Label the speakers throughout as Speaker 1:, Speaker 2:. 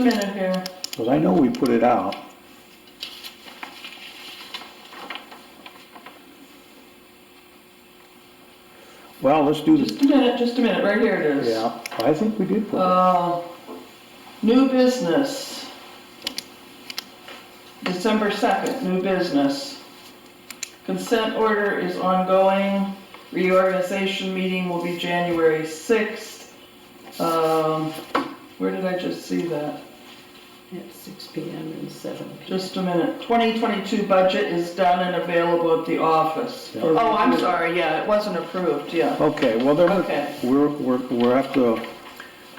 Speaker 1: minute here.
Speaker 2: Because I know we put it out. Well, let's do the,
Speaker 1: Just a minute, just a minute, right here it is.
Speaker 2: yeah, I think we did put it.
Speaker 1: Uh, New business. December 2nd, new business. Consent order is ongoing. Reorganization meeting will be January 6th. Um, Where did I just see that?
Speaker 3: At six P M. and seven P M.
Speaker 1: Just a minute. 2022 budget is done and available at the office.
Speaker 2: Yeah.
Speaker 1: Oh, I'm sorry, yeah, it wasn't approved, yeah.
Speaker 2: Okay, well, then,
Speaker 1: Okay.
Speaker 2: we're, we're, we're have to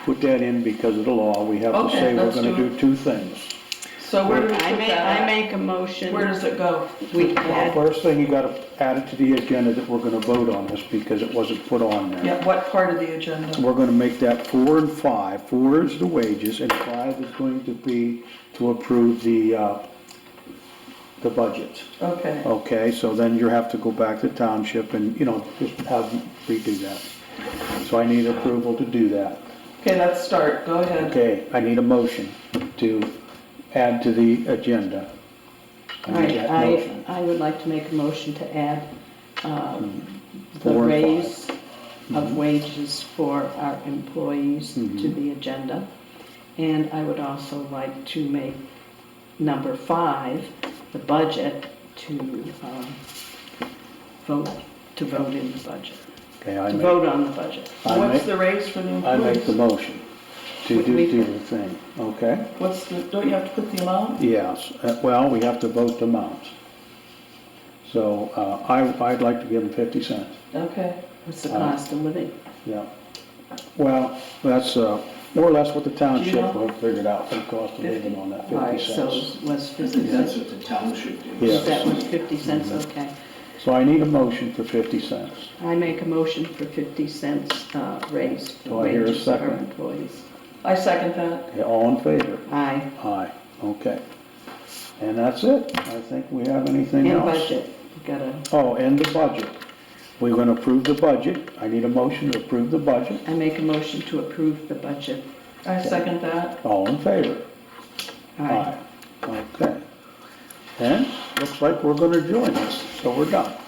Speaker 2: put that in because of the law. We have to
Speaker 1: Okay,
Speaker 2: say we're
Speaker 1: let's
Speaker 2: gonna
Speaker 1: do
Speaker 2: do two things.
Speaker 1: So where do we
Speaker 3: I
Speaker 1: put
Speaker 3: make,
Speaker 1: that?
Speaker 3: I make a
Speaker 1: Where
Speaker 3: motion,
Speaker 1: does it go?
Speaker 3: we
Speaker 2: Well,
Speaker 3: add,
Speaker 2: First thing, you gotta add it to the agenda that we're gonna vote on this because it wasn't put on there.
Speaker 1: Yeah, what part of the agenda?
Speaker 2: We're gonna make that four and five. Four is the wages, and five is going to be to approve the, uh, the budget.
Speaker 1: Okay.
Speaker 2: Okay, so then you have to go back to township and, you know, just have them redo that. So I need approval to do that.
Speaker 1: Okay, let's start, go ahead.
Speaker 2: Okay, I need a motion to add to the agenda. I need
Speaker 3: I,
Speaker 2: that
Speaker 3: I,
Speaker 2: motion.
Speaker 3: I would like to make a motion to add, um,
Speaker 2: Hmm.
Speaker 3: the
Speaker 2: Four and five. Hmm.
Speaker 3: raise of wages for our employees to the agenda. And I would also like to make number five, the budget, to, um, vote, to vote in the budget,
Speaker 2: Okay, I
Speaker 3: to
Speaker 2: make,
Speaker 3: vote on the budget.
Speaker 2: I
Speaker 1: What's
Speaker 2: make,
Speaker 1: the raise for the
Speaker 2: I make the
Speaker 1: employees?
Speaker 2: motion to do,
Speaker 3: We-
Speaker 2: do the thing, okay?
Speaker 1: What's the, don't you have to put the amount?
Speaker 2: Yes, uh, well, we have to vote the amount. So, uh, I, I'd like to give them fifty cents,
Speaker 1: Okay,
Speaker 3: What's
Speaker 2: Uh,
Speaker 3: the cost of living?
Speaker 2: yeah. Well, that's, uh, more or less what the
Speaker 1: Do you
Speaker 2: township
Speaker 1: know?
Speaker 2: will figure it out, for the cost of living on that
Speaker 3: All right,
Speaker 2: fifty
Speaker 3: so
Speaker 2: cents.
Speaker 3: it was
Speaker 4: I
Speaker 3: fifty
Speaker 4: think that's
Speaker 3: cents,
Speaker 4: what the township did.
Speaker 2: Yeah.
Speaker 3: that was fifty cents, okay.
Speaker 2: So I need a motion for fifty cents.
Speaker 3: I make a motion for fifty cents uh, raise
Speaker 2: Do
Speaker 3: for
Speaker 2: I hear a
Speaker 3: wages for our
Speaker 2: second?
Speaker 3: employees.
Speaker 1: I second that.
Speaker 2: Okay, all in favor?
Speaker 3: Aye,
Speaker 2: Aye, okay. And that's it. I think we have anything
Speaker 3: and
Speaker 2: else.
Speaker 3: budget, we gotta,
Speaker 2: Oh, and the budget. We're gonna approve the budget. I need a motion to approve the budget.
Speaker 3: I make a motion to approve the budget.
Speaker 1: I second that.
Speaker 2: All in favor?
Speaker 3: Aye.
Speaker 2: Okay. And looks like we're gonna join us, so we're done.